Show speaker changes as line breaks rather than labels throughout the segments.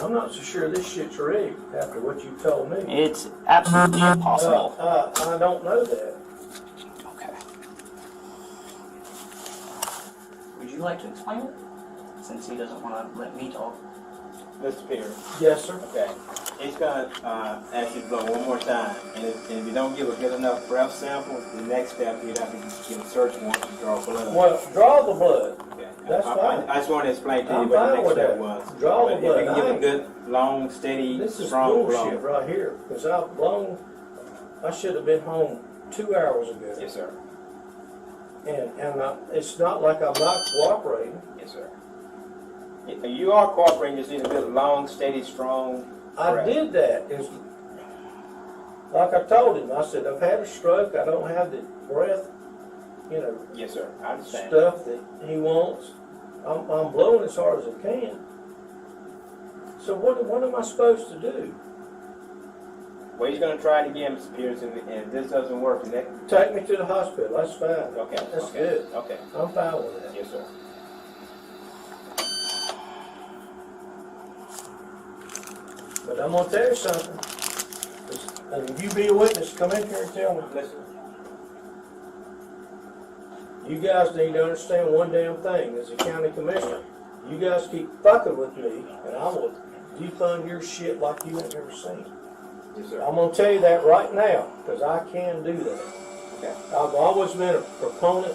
I'm not so sure this shit's rigged after what you told me.
It's absolutely
Uh,
impossible.
uh, I don't know that.
Okay.
Would you like to explain it? Since he doesn't want to let me talk.
Mr. Perry,
Yes, sir.
okay. He's gonna uh, ask you to blow one more time, and if, and if you don't give a good enough breath sample, the next step you'd have to give a search warrant to draw blood.
Well, draw the blood.
Okay.
that's
I,
fine.
I, I just want to explain to you
I'm
what
fine
the next
with
step
that.
was.
Draw the
but if you
blood.
can
I
give a
ain't-
good, long, steady,
This is
strong
bullshit
blow.
right here, because I've blown, I should have been home two hours ago.
Yes, sir.
And, and I, it's not like I'm not cooperating.
Yes, sir. If you are cooperating, you just need a good, long, steady, strong.
I
Correct.
did that. It's, like I told him, I said, I've had a stroke, I don't have the breath, you know,
Yes, sir. I understand.
stuff that he wants. I'm, I'm blowing as hard as I can. So what, what am I supposed to do?
Well, he's gonna try it again, Mr. Pearson, and if this doesn't work, the next.
Take me to the hospital, that's fine.
Okay.
That's
okay,
good.
Okay.
I'm fine with that.
Yes, sir.
But I'm gonna tell you something. It's- And if you be a witness, come in here and tell me.
Listen.
You guys need to understand one damn thing, as a county commissioner. You guys keep fucking with me, and I will defund your shit like you ain't never seen.
Yes,
I'm gonna tell you that right now, because I can do that.
Okay.
I've always been a proponent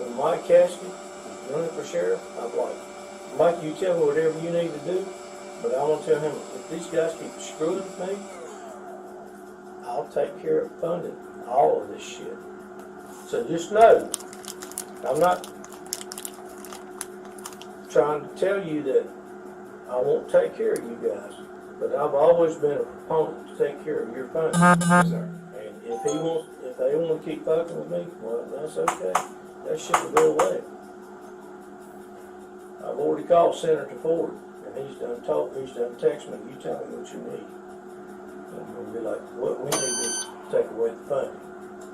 of Mike Caskey running for sheriff. I'm like, Mike, you tell me whatever you need to do, but I'm gonna tell him, if these guys keep screwing with me, I'll take care of funding all of this shit. So just know, I'm not trying to tell you that I won't take care of you guys, but I've always been a proponent to take care of your funding.
Yes, sir.
And if he wants, if they wanna keep fucking with me, well, that's okay, that shit will go away. I've already called Senator Ford, and he's done talk, he's done text me, you tell me what you need. And we'll be like, what we need is take away the funding,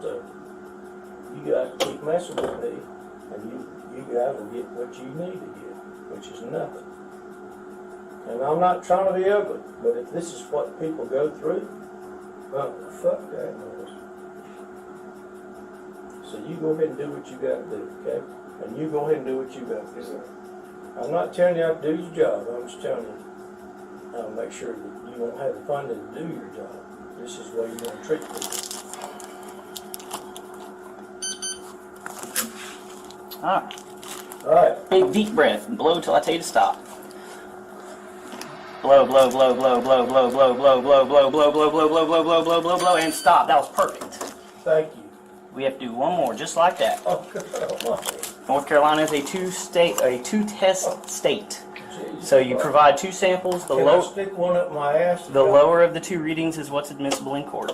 so you guys keep messing with me, and you, you guys will get what you need to get, which is nothing. And I'm not trying to be ugly, but if this is what people go through, well, fuck that noise. So you go ahead and do what you gotta do, okay? And you go ahead and do what you gotta
Yes,
do.
sir.
I'm not telling you how to do your job, I'm just telling you, uh, make sure that you don't have the funding to do your job. This is the way you're gonna treat people.
All right.
Alright,
Ah, Big deep breath and blow till I tell you to stop. Blow, blow, blow, blow, blow, blow, blow, blow, blow, blow, blow, blow, blow, blow, blow, blow, blow, blow, blow, and stop. That was perfect.
thank you.
We have to do one more, just like that.
Oh, God,
North Carolina is a two-state, a two-test state.
Jesus
So you
Christ.
provide two samples. The
Can I
low,
stick one up my ass?
the lower of the two readings is what's admissible in court.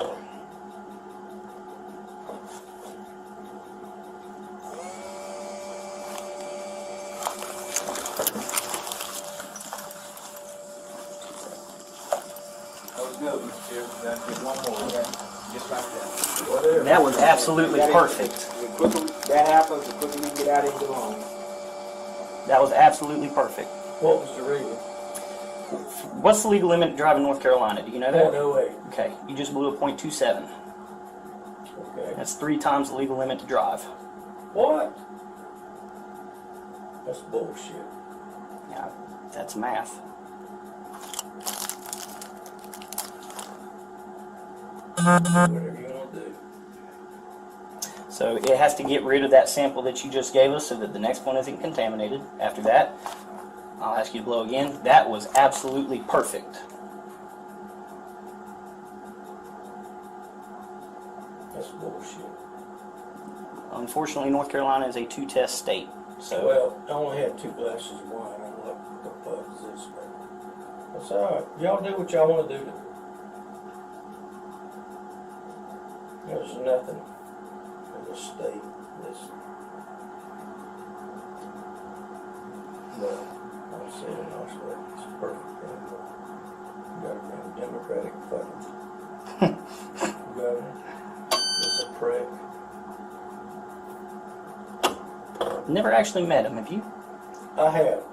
That was good, Mr. Chair. That's just one more, okay? Just like that.
Whatever.
That was absolutely
That is-
perfect.
The quicker that happens, the quicker we can get out of here alone.
That was absolutely perfect.
What was the reading?
What's the legal limit to drive in North Carolina? Do you know
Point
that?
oh eight,
Okay, you just blew a .27.
okay.
That's three times the legal limit to drive.
What? That's bullshit.
Yeah, that's math.
Whatever you wanna do.
So it has to get rid of that sample that you just gave us so that the next one isn't contaminated. After that, I'll ask you to blow again. That was absolutely perfect.
That's bullshit.
Unfortunately, North Carolina is a two-test state, so
Well, I only had two glasses of wine. I'm like, what the fuck is this? man?" That's all right. Y'all do what y'all want to do. to There's nothing in the state that's. Well, I'm saying in Australia, it's perfect. damn well. You got a damn Democratic fucking governor. It's a prick.
never actually met him. Have you?
I have.